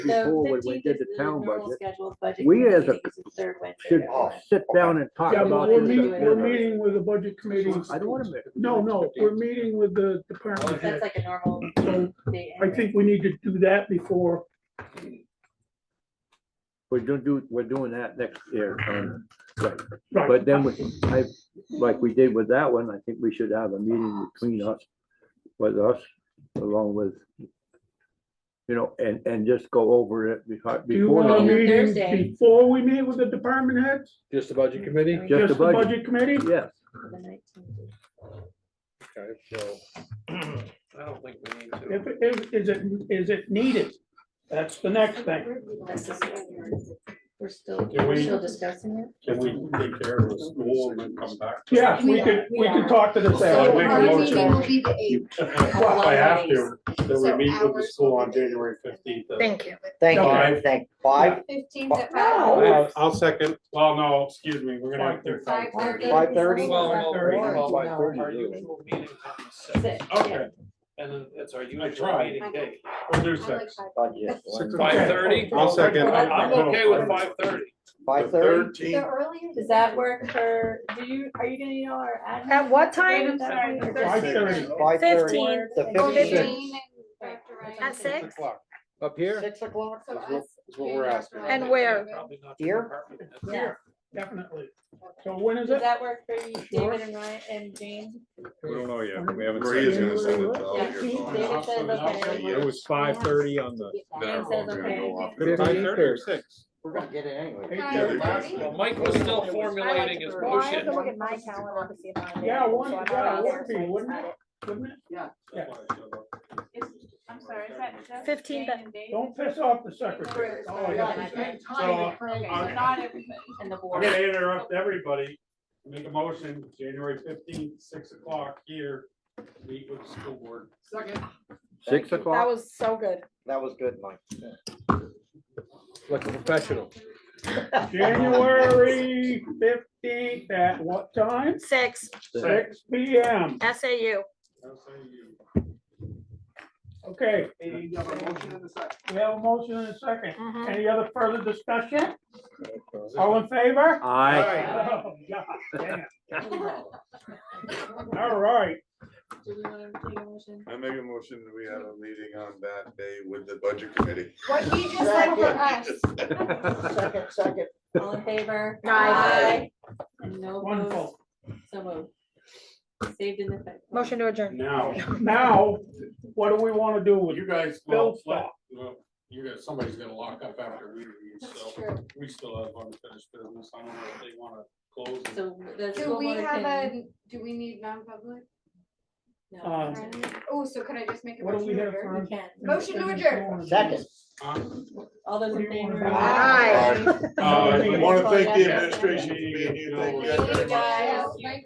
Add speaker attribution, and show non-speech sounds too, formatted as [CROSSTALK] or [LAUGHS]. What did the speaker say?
Speaker 1: So
Speaker 2: before when we
Speaker 1: 15th
Speaker 2: did
Speaker 1: is
Speaker 2: the town
Speaker 1: normal
Speaker 2: budget,
Speaker 1: scheduled budget
Speaker 2: we
Speaker 1: committee
Speaker 2: as a-
Speaker 1: meetings, the third Wednesday
Speaker 2: should
Speaker 1: of every month.
Speaker 2: sit down and talk
Speaker 3: Oh. Yeah,
Speaker 2: about
Speaker 3: but we're
Speaker 2: this.
Speaker 3: meeting,
Speaker 2: at dinner.
Speaker 3: we're meeting with the budget committee.
Speaker 2: I don't want to miss.
Speaker 3: No, no, we're meeting with the
Speaker 1: That's
Speaker 3: department head.
Speaker 1: like a normal
Speaker 3: So
Speaker 1: date.
Speaker 3: I think we need to do that before,
Speaker 2: We're doing, do- we're doing that next year. um, right.
Speaker 3: right.
Speaker 2: But then, we- I, like we did with that one, I think we should have a meeting between us, with us, along with, you know, and, and just go over it beho-
Speaker 3: Do you
Speaker 2: before.
Speaker 3: want a
Speaker 1: On
Speaker 2: the-
Speaker 3: meeting
Speaker 1: Thursday.
Speaker 3: before we meet with the department heads?
Speaker 4: Just the budget committee?
Speaker 1: Just
Speaker 2: the
Speaker 3: Just the
Speaker 2: budget.
Speaker 3: budget committee?
Speaker 2: Yes,
Speaker 1: The 19th.
Speaker 4: Okay, so. [CLEARS THROAT] I don't think we need
Speaker 3: If, if, is it, is it needed? That's the next thing.
Speaker 1: That's the- We're still,
Speaker 5: Can
Speaker 1: we're
Speaker 5: we-
Speaker 1: still discussing it.
Speaker 5: Can we take care of the school and then come back? to
Speaker 3: Yeah,
Speaker 5: that?
Speaker 3: we could, we could talk to the
Speaker 5: So I
Speaker 6: So
Speaker 5: make a
Speaker 6: our
Speaker 5: motion.
Speaker 6: meeting will
Speaker 3: staff.
Speaker 6: be the eighth.
Speaker 5: If I have to, then we meet with the school on January fifteenth.
Speaker 6: Thank you.
Speaker 7: Thank
Speaker 3: Okay.
Speaker 7: you, thank, five,
Speaker 6: Fifteenth at
Speaker 3: No.
Speaker 6: five.
Speaker 5: I'll second, well, no, excuse me, we're gonna have to.
Speaker 6: Five thirty.
Speaker 7: Five thirty?
Speaker 5: Oh,
Speaker 4: Our usual meeting on the
Speaker 1: Six,
Speaker 4: sixth,
Speaker 1: yeah.
Speaker 5: Okay,
Speaker 4: and then it's our
Speaker 5: I
Speaker 4: usual
Speaker 5: tried.
Speaker 4: meeting date.
Speaker 5: we'll do
Speaker 6: I like
Speaker 5: six.
Speaker 6: five.
Speaker 7: budget,
Speaker 4: Five thirty?
Speaker 5: I'll second.
Speaker 4: I'm okay with five thirty.
Speaker 7: five thirty?
Speaker 6: The earlier.
Speaker 1: Does that work for, do you, are you gonna know our? admin?
Speaker 8: At what
Speaker 1: Sorry,
Speaker 8: time?
Speaker 1: that
Speaker 3: Five
Speaker 1: way?
Speaker 3: thirty.
Speaker 7: Five thirty,
Speaker 8: Fifteen.
Speaker 7: the
Speaker 1: Or
Speaker 6: Well,
Speaker 7: fifty-six.
Speaker 6: Jane and Dr. Ryan.
Speaker 8: At six?
Speaker 2: up here,
Speaker 7: Six o'clock?
Speaker 6: So
Speaker 7: is
Speaker 6: us.
Speaker 7: what-
Speaker 4: Is what we're asking.
Speaker 8: And where?
Speaker 4: Probably not the
Speaker 7: Here?
Speaker 4: department.
Speaker 1: Yeah.
Speaker 3: Definitely. So when is
Speaker 1: Does
Speaker 3: it?
Speaker 1: that work for you,
Speaker 3: Sure.
Speaker 1: David and Ryan and James?
Speaker 9: We don't know yet. We haven't.
Speaker 5: Maria's
Speaker 9: said.
Speaker 5: gonna send it to
Speaker 1: Yeah, David said, look, I don't
Speaker 9: It
Speaker 1: know.
Speaker 9: was five thirty on the.
Speaker 1: James says, okay.
Speaker 5: Five thirty or six?
Speaker 7: We're gonna get it anyway.
Speaker 4: Well, Mike was still formulating his
Speaker 8: Well, I
Speaker 4: motion.
Speaker 8: have to look at my calendar to see if I'm.
Speaker 3: Yeah,
Speaker 8: available,
Speaker 3: one-
Speaker 8: so I'm
Speaker 3: yeah,
Speaker 8: already
Speaker 3: it
Speaker 8: there,
Speaker 3: would be,
Speaker 8: so I
Speaker 3: wouldn't
Speaker 8: decided.
Speaker 3: Wouldn't it?
Speaker 1: I'm sorry, is that- is that?
Speaker 8: 15th
Speaker 1: Jane and Dave?
Speaker 3: Don't piss off the secretary.
Speaker 1: Oh,
Speaker 3: Oh,
Speaker 1: yeah.
Speaker 3: yeah.
Speaker 5: So,
Speaker 1: Okay,
Speaker 6: uh,
Speaker 1: so
Speaker 5: I'm-
Speaker 1: not everybody in the
Speaker 5: I'm
Speaker 1: board.
Speaker 5: gonna interrupt everybody, make a motion, January fifteenth, six o'clock here, meet with the school board.
Speaker 2: six
Speaker 7: Thank you.
Speaker 8: That
Speaker 2: o'clock,
Speaker 8: was so good.
Speaker 7: That was good, Mike.
Speaker 4: Like a professional.
Speaker 7: [LAUGHS]
Speaker 3: January fifteenth at what time?
Speaker 8: Six,
Speaker 2: Six.
Speaker 3: Six P M.
Speaker 8: SAU.
Speaker 5: I'll say you.
Speaker 3: Okay. We have a motion and a second.
Speaker 6: Um.
Speaker 8: Mhm.
Speaker 3: Any other further discussion? All in favor?
Speaker 2: aye.
Speaker 3: Oh, God damn.
Speaker 6: [LAUGHS]
Speaker 3: All right.
Speaker 1: Do we want to take a motion?
Speaker 9: I make a motion, that we have a meeting on that day with the budget committee.
Speaker 6: What he just said for us.
Speaker 4: [LAUGHS]
Speaker 7: Second, second.
Speaker 1: All in favor?
Speaker 8: Aye.
Speaker 1: Aye. And no
Speaker 3: Wonderful.
Speaker 1: opposed, so moved. Saved in the. fact.
Speaker 8: Motion to adjourn.
Speaker 5: Now,
Speaker 3: Now, what do we want to do with
Speaker 5: you guys,
Speaker 3: Bill
Speaker 5: well,
Speaker 3: stop?
Speaker 5: well, you guys, somebody's gonna lock up after we leave,
Speaker 6: That's
Speaker 5: so
Speaker 6: true.
Speaker 5: we still have unfinished business. I don't know if they wanna close. it.
Speaker 1: So the
Speaker 6: Do
Speaker 1: school
Speaker 6: we
Speaker 1: board
Speaker 6: have
Speaker 1: can.
Speaker 6: a, do we need non-public?
Speaker 1: No,
Speaker 3: Um,
Speaker 6: Oh, so can I just make a
Speaker 3: What do
Speaker 6: motion?
Speaker 3: we
Speaker 6: to
Speaker 3: have
Speaker 6: adjourn?
Speaker 3: for?
Speaker 1: we can.
Speaker 6: Motion to adjourn.
Speaker 7: Second.
Speaker 5: Um,
Speaker 1: All those
Speaker 3: What do
Speaker 1: in
Speaker 3: you wanna
Speaker 1: favor?
Speaker 3: do?
Speaker 6: Aye.
Speaker 5: uh,
Speaker 9: I want to thank the administration, you, you know,
Speaker 1: Thank you, guys.
Speaker 6: Yeah, thank